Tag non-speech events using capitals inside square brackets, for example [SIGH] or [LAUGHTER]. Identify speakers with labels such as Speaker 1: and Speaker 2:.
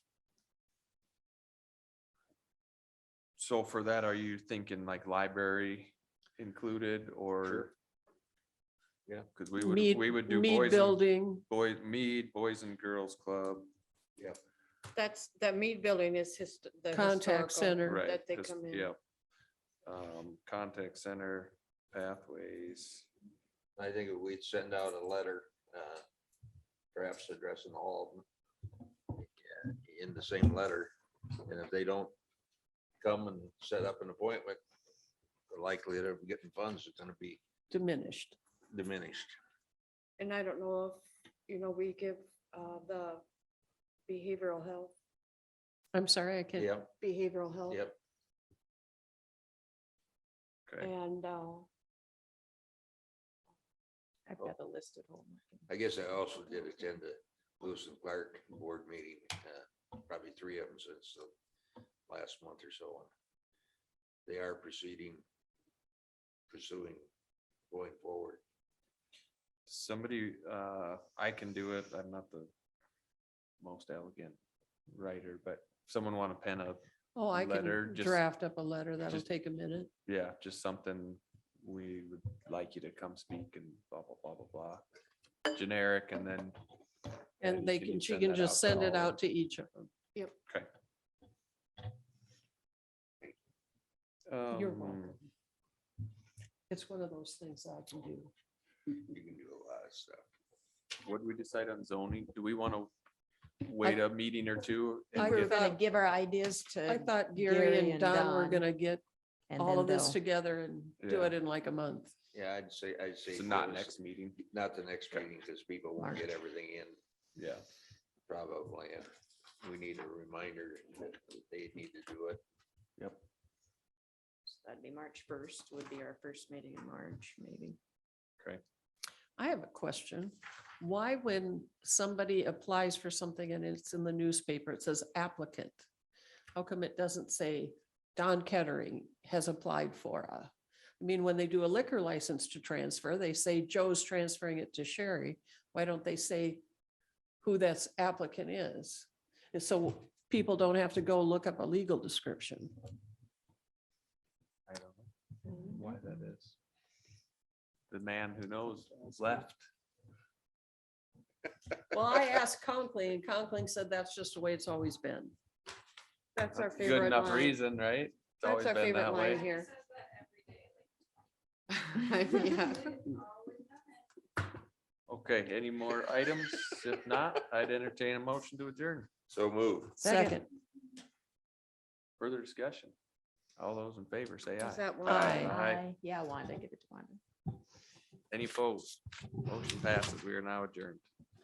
Speaker 1: So for that, are you thinking like library included or? Yeah, cause we would,
Speaker 2: Mead-
Speaker 1: we would do
Speaker 2: Mead
Speaker 1: boys, and-
Speaker 2: Building,
Speaker 1: boy, mead, boys and girls club,
Speaker 3: That's, that Mead Building is his. the
Speaker 2: Contact
Speaker 3: historical-
Speaker 2: center.
Speaker 1: right?
Speaker 3: That they
Speaker 1: just-
Speaker 3: come in.
Speaker 1: Yeah. Um, contact center, pathways,
Speaker 4: I think if we'd send out a letter, uh, perhaps addressing all of them yeah, in the same letter, and if they don't come and set up an appointment, the likelihood of getting funds is gonna be
Speaker 2: diminished.
Speaker 4: diminished.
Speaker 3: And I don't know if, you know, we give uh, the behavioral health,
Speaker 2: I'm sorry, I can't.
Speaker 4: Yep,
Speaker 3: behavioral health.
Speaker 4: yep.
Speaker 1: okay,
Speaker 3: And uh,
Speaker 5: I've got a list at home.
Speaker 4: I guess I also did attend a Lewis and Clark board meeting, uh, probably three of them since the last month or so. They are proceeding, pursuing, going forward.
Speaker 1: somebody, uh, I can do it, I'm not the most elegant writer, but someone wanna pen a
Speaker 2: Oh, I
Speaker 1: Letter,
Speaker 2: can
Speaker 1: just-
Speaker 2: draft up a letter. That'll
Speaker 1: just-
Speaker 2: take a minute.
Speaker 1: yeah, just something we would like you to come speak and blah, blah, blah, blah, blah. Generic and then.
Speaker 2: And they can, she can just send it out to each of them.
Speaker 1: You're
Speaker 2: You're
Speaker 1: Um,
Speaker 2: welcome. It's one of those things I can do.
Speaker 4: You can do a lot of stuff.
Speaker 1: What do we decide on zoning? Do we want to wait a meeting or two? and
Speaker 2: I
Speaker 5: We're
Speaker 1: get-
Speaker 2: thought-
Speaker 5: gonna give our ideas
Speaker 2: I
Speaker 5: to,
Speaker 2: thought Gary and Don were
Speaker 5: Don.
Speaker 2: gonna get
Speaker 5: and
Speaker 2: all
Speaker 5: then
Speaker 2: of this
Speaker 5: they'll,
Speaker 2: together and do
Speaker 1: Yeah.
Speaker 2: it in like a month.
Speaker 4: Yeah, I'd say, I'd say.
Speaker 1: So not
Speaker 4: first-
Speaker 1: next meeting,
Speaker 4: Not the next meeting, because people won't get
Speaker 5: March.
Speaker 4: everything in,
Speaker 1: yeah.
Speaker 4: probably. and We need a reminder that they need to do it.
Speaker 5: that'd be March first would be our first meeting in March, maybe.
Speaker 2: I have a question. Why when somebody applies for something and it's in the newspaper, it says applicant? How come it doesn't say Don Kettering has applied for a? I mean, when they do a liquor license to transfer, they say Joe's transferring it to Sherry. Why don't they say who that's applicant is? And so people don't have to go look up a legal description.
Speaker 1: I don't know why that is. The man who knows has left.
Speaker 2: Well, I asked Conkling and Conkling said that's just the way it's always been.
Speaker 3: that's our
Speaker 1: That's a Good
Speaker 3: favorite
Speaker 1: enough
Speaker 3: line.
Speaker 1: reason, right? It's always
Speaker 3: That's our
Speaker 1: been
Speaker 3: favorite
Speaker 1: that way.
Speaker 3: line here. Yeah. [LAUGHS]
Speaker 5: [LAUGHS]
Speaker 1: Okay, any more items? If not, I'd entertain a motion to adjourn.
Speaker 4: So move.
Speaker 2: Second.
Speaker 1: Further discussion? All those in favor, say
Speaker 3: Is
Speaker 1: aye.
Speaker 3: that one?
Speaker 2: Aye.
Speaker 5: Aye. Yeah, Wanda, give it to Wanda.
Speaker 1: Any opposed? Motion passes. We are now adjourned.